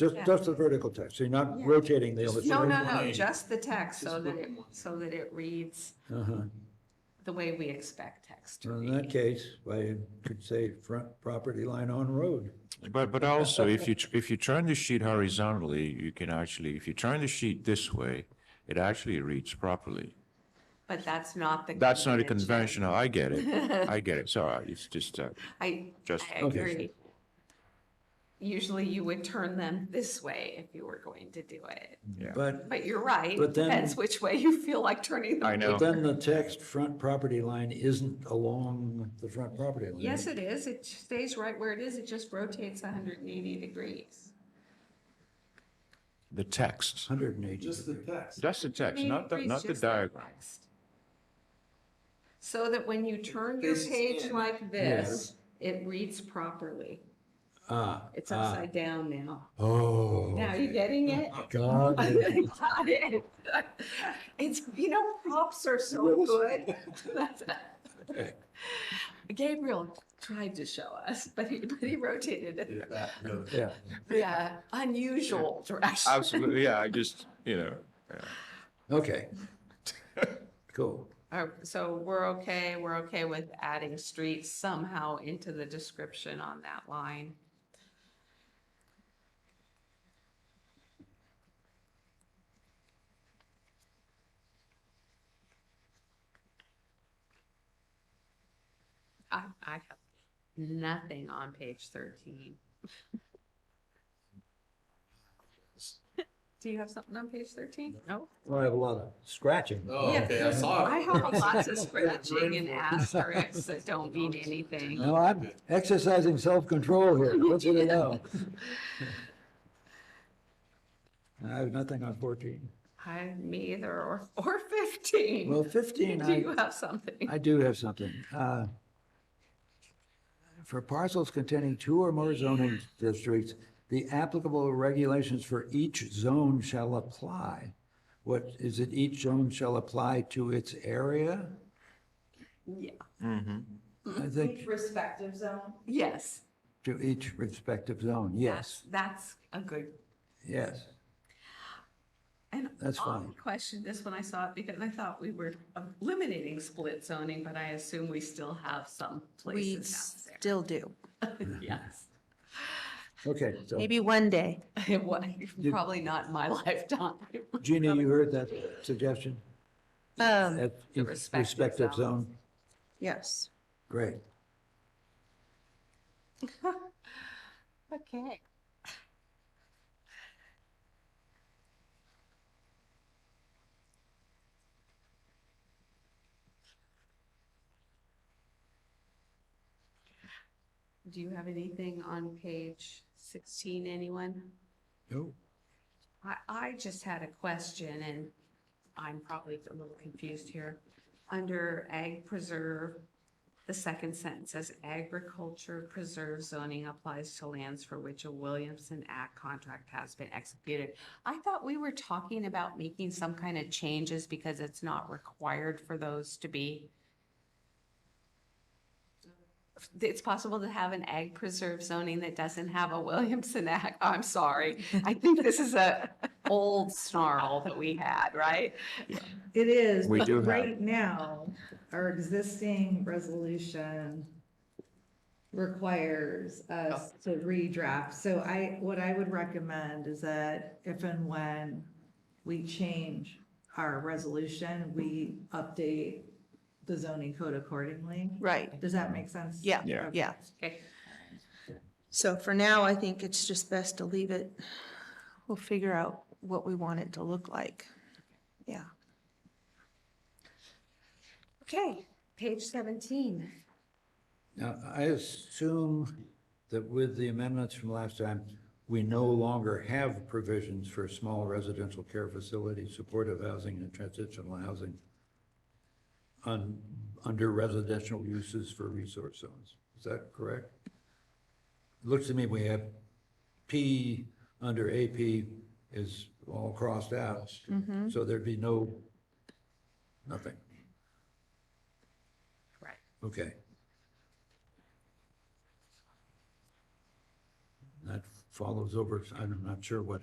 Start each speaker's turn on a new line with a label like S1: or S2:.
S1: Just,
S2: Yeah.
S1: just the vertical text, so you're not
S2: Yeah.
S1: rotating the other.
S2: No,
S1: side.
S2: no, no,
S3: Right.
S2: just the text so
S3: Just
S2: that
S3: look
S2: it,
S3: at one.
S2: so that it reads
S1: Uh-huh.
S2: the way we expect text to
S1: So In
S2: read.
S1: that case, I could say front property line on road.
S4: But, but also, if you, tr- if you turn the sheet horizontally, you can actually, if you turn the sheet this way, it actually reads properly.
S2: But that's not the.
S4: That's not a
S2: convention.
S4: conventional, I get it, I get it, sorry, it's just, uh,
S2: I,
S4: Just-
S2: I
S1: Okay.
S2: agree. Usually you would turn them this way if you were going to do it.
S4: yeah.
S1: But
S2: But you're right.
S1: But then-
S2: Depends which way you feel like turning them.
S4: I know.
S1: then the text, front property line isn't along the front property line.
S2: Yes, it is. It stays right where it is. It just rotates 180 degrees.
S4: The text,
S1: Hundred and eighty.
S3: Just the text.
S4: that's the text,
S2: Maybe
S4: not the,
S2: reads
S4: not the
S2: just like
S4: diagram.
S2: text. So that when you turn your
S3: Faces
S2: page
S3: in.
S2: like this, it reads properly.
S1: Ah.
S2: It's
S1: ah.
S2: upside down now.
S1: Oh.
S2: Now, you getting it?
S1: God.
S2: Got it. It's, you know, props are so good. Gabriel tried to show us, but he, but he rotated it.
S1: Yeah,
S2: Yeah, unusual direction.
S4: Absolutely, yeah, I just, you know,
S1: okay. Cool.
S2: All right, So we're okay, we're okay with adding streets somehow into the description on that line. I, I have nothing on page thirteen. Do you have something on page thirteen? No?
S1: Well, I have a lot of scratching.
S3: Oh,
S2: Yeah,
S3: okay, I saw
S2: I
S3: it.
S2: have lots of scratching and asterisks that don't mean anything.
S1: Now, I'm exercising self-control here, what should I know? I have nothing on fourteen.
S2: I, me either, or, or fifteen.
S1: Well, fifteen,
S2: Do
S1: I,
S2: you have something?
S1: I do have something. Uh, For parcels containing two or more zoning districts, the applicable regulations for each zone shall apply. What, is it each zone shall apply to its area?
S2: Yeah.
S1: I think
S5: respective zone.
S2: Yes.
S1: to each respective zone, yes,
S2: That's that's a good.
S1: yes.
S2: And
S1: That's
S2: I
S1: fine.
S2: questioned this when I saw it because I thought we were eliminating split zoning, but I assume we still have some
S5: We
S2: places out
S5: still do.
S2: there. Yes.
S1: Okay, so
S5: Maybe one day.
S2: It wa- Probably not in my lifetime.
S1: Jeannie, you heard that suggestion?
S5: Um,
S1: At
S2: The
S1: each
S2: respective
S1: respective
S2: zones.
S1: zone?
S5: yes.
S1: Great.
S2: Okay. Do you have anything on page sixteen, anyone?
S1: No.
S2: I, I just had a question and I'm probably a little confused here. Under ag preserve, the second sentence says agriculture preserve zoning applies to lands for which a Williamson Act contract has been executed. I thought we were talking about making some kind of changes because it's not required for those to be. It's possible to have an ag preserve zoning that doesn't have a Williamson Act. I'm sorry. I think this is a old snarl that we had, right?
S6: It is.
S4: We
S6: but
S4: do have-
S6: Right now, our existing resolution requires us to redraft. So I, what I would recommend is that if and when we change our resolution, we update the zoning code accordingly.
S5: Right.
S6: Does that make sense?
S5: Yeah,
S4: Yeah.
S5: yeah.
S2: Okay.
S5: So for now, I think it's just best to leave it. We'll figure out what we want it to look like. Yeah.
S2: Okay, page seventeen.
S1: Now, I assume that with the amendments from last time, we no longer have provisions for small residential care facilities, supportive housing, and transitional housing on, under residential uses for resource zones. Is that correct? Looks to me we have P under AP is all crossed out. So there'd be no, nothing.
S2: Right.
S1: Okay. That follows over, I'm not sure what